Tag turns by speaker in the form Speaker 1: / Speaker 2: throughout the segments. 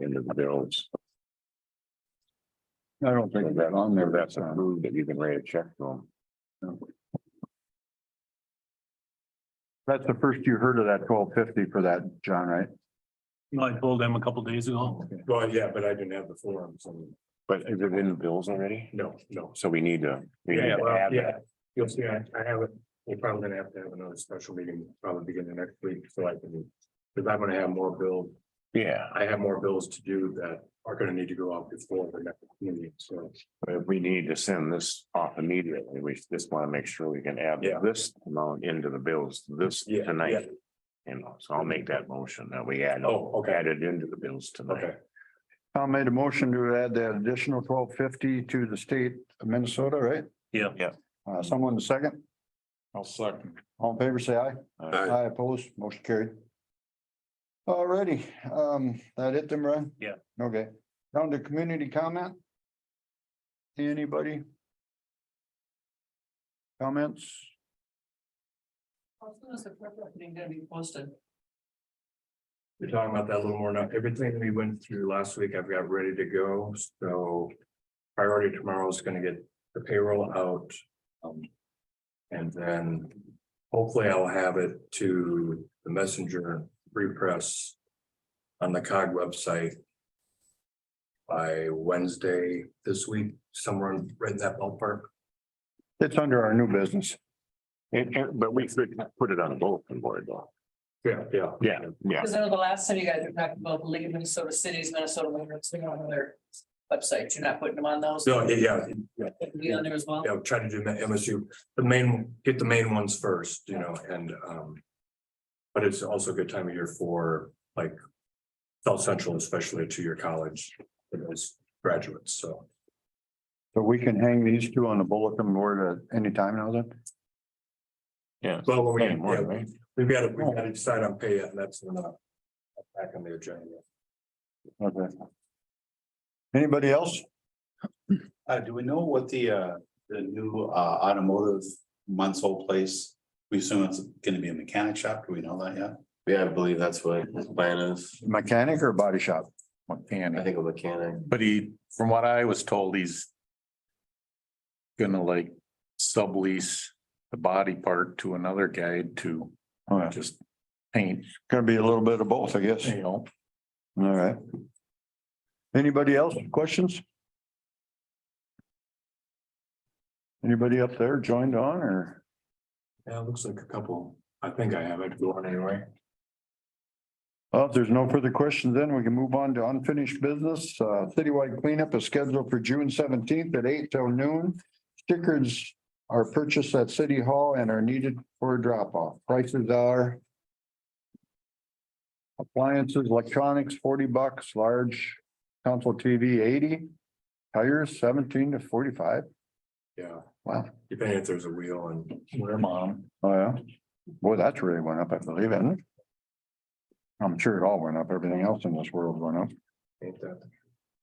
Speaker 1: into the bills.
Speaker 2: I don't
Speaker 1: So
Speaker 2: think
Speaker 1: that
Speaker 2: that on there, that's
Speaker 1: that's
Speaker 2: not.
Speaker 1: approved, that you can write a check to them.
Speaker 2: That's the first you heard of that twelve fifty for that, John, right?
Speaker 3: I told them a couple days ago.
Speaker 4: Well, yeah, but I didn't have the forms and
Speaker 1: But is it in the bills already?
Speaker 4: no, no.
Speaker 1: So we need to. we need
Speaker 4: Yeah,
Speaker 1: to
Speaker 4: well,
Speaker 1: add
Speaker 4: yeah.
Speaker 1: that.
Speaker 4: You'll see, I, I have it. We're probably gonna have to have another special meeting probably beginning next week, so I can. Cause I'm gonna have more bill,
Speaker 1: Yeah,
Speaker 4: I have more bills to do that are gonna need to go out before the next meeting, so.
Speaker 1: but we need to send this off immediately. We just want to make sure we can add
Speaker 4: Yeah.
Speaker 1: this amount into the bills this
Speaker 4: Yeah,
Speaker 1: tonight. You know, so I'll make that motion that we add,
Speaker 4: Oh, okay,
Speaker 1: add it into the bills tonight.
Speaker 4: okay,
Speaker 2: Tom made a motion to add that additional twelve fifty to the state of Minnesota, right?
Speaker 3: Yeah.
Speaker 1: Yeah.
Speaker 2: Uh, someone second,
Speaker 3: I'll second.
Speaker 2: all in favor, say aye.
Speaker 1: Uh,
Speaker 2: Aye, opposed, motion carried. Alrighty, um, that it then, Brian?
Speaker 3: Yeah.
Speaker 2: Okay, down to community comment. Anybody? Comments?
Speaker 5: How soon is the prep work meeting gonna be posted?
Speaker 4: we're talking about that a little more now. Everything we went through last week, I've got ready to go, so. Priority tomorrow is gonna get the payroll out. um, And then hopefully I'll have it to the messenger repress. On the cog website. By Wednesday this week, somewhere right in that ballpark.
Speaker 2: It's under our new business.
Speaker 1: and- and- but we could put it on the bulletin board though.
Speaker 4: Yeah, yeah.
Speaker 1: Yeah, yeah.
Speaker 5: Because I know the last time you guys were talking about the League of Minnesota Cities, Minnesota, Women's, they don't have their websites. You're not putting them on those.
Speaker 4: So, yeah,
Speaker 5: It'll Be on there as well.
Speaker 4: you know, try to do the MSU, the main, get the main ones first, you know, and um. But it's also a good time of year for like South Central, especially to your college, for those graduates, so.
Speaker 2: So we can hang these two on the bulletin board at any time now then?
Speaker 1: Yeah.
Speaker 4: Well, when we,
Speaker 1: Any more,
Speaker 4: yeah,
Speaker 1: right?
Speaker 4: we've got to, we've got to decide on pay yet, and that's not back on the agenda.
Speaker 2: Okay. Anybody else?
Speaker 6: Uh, do we know what the, uh, the new, uh, automotive month's old place? We assume it's gonna be a mechanic shop. Do we know that yet?
Speaker 7: Yeah, I believe that's what his plan is.
Speaker 2: Mechanic or body shop?
Speaker 7: I think a mechanic.
Speaker 8: But he, from what I was told, he's. Gonna like sublease the body part to another guy to
Speaker 2: All right,
Speaker 8: just paint,
Speaker 2: gonna be a little bit of both, I guess.
Speaker 8: you know.
Speaker 2: All right. Anybody else? Questions? Anybody up there joined on or?
Speaker 4: Yeah, it looks like a couple, I think I have it going anyway.
Speaker 2: Well, if there's no further questions, then we can move on to unfinished business. Uh, citywide cleanup is scheduled for June seventeenth at eight till noon. Stickers are purchased at City Hall and are needed for drop off. Prices are appliances, electronics, forty bucks, large console TV, eighty, tires seventeen to forty-five.
Speaker 4: Yeah,
Speaker 2: Wow.
Speaker 4: depending if there's a wheel and.
Speaker 8: Where mom.
Speaker 2: Oh, yeah. Boy, that's really went up, I believe, isn't it? I'm sure it all went up. Everything else in this world went up.
Speaker 4: ain't that-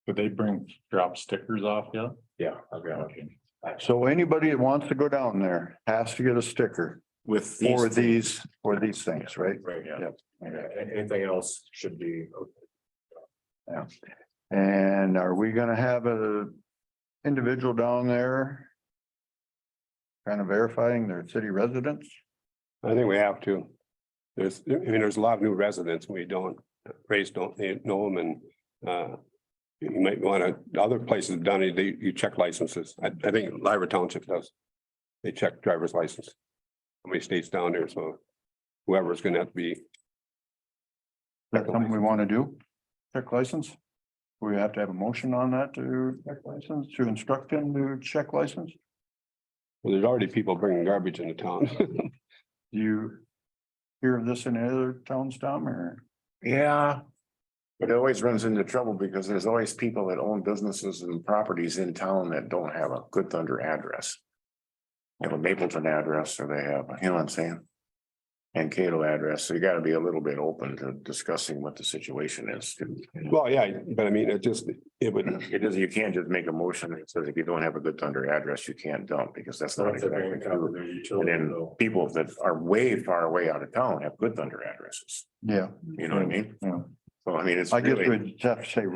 Speaker 8: Did they bring drop stickers off yet?
Speaker 4: Yeah, I've got it.
Speaker 2: So anybody that wants to go down there has to get a sticker
Speaker 7: With.
Speaker 2: for these, for these things, right?
Speaker 4: Right, yeah.
Speaker 2: Yep.
Speaker 4: Yeah, Anything else should be okay.
Speaker 2: And are we gonna have a individual down there? Kind of verifying their city residence?
Speaker 9: I think we have to. There's, I mean, there's a lot of new residents. We don't, raise don't they know them and uh. You might want to, other places have done it, they, you check licenses. I, I think Lyra Township does. They check driver's license. How many states down there, so whoever's gonna have to be,
Speaker 2: That's something we want to do? Check license? We have to have a motion on that to check license, to instruct them to check license?
Speaker 9: well, there's already people bringing garbage into town.
Speaker 2: Do you hear of this in other towns, Tom, or?
Speaker 1: Yeah. But it always runs into trouble because there's always people that own businesses and properties in town that don't have a Good Thunder address. They Have a Mapleton address or they have, you know what I'm saying? And Cato address, so you gotta be a little bit open to discussing what the situation is. too.
Speaker 9: Well, yeah, but I mean, it just, it would,
Speaker 1: It is, you can't just make a motion that says if you don't have a Good Thunder address, you can't dump because that's not
Speaker 4: Not if they're
Speaker 1: exactly
Speaker 4: bringing cover
Speaker 1: true.
Speaker 4: their
Speaker 1: And
Speaker 4: utility
Speaker 1: then
Speaker 4: bill.
Speaker 1: people that are way far away out of town have Good Thunder addresses,
Speaker 2: Yeah.
Speaker 1: you know what I mean?
Speaker 2: Yeah.
Speaker 1: So I mean, it's.
Speaker 2: I guess
Speaker 1: really-
Speaker 2: we'd have to say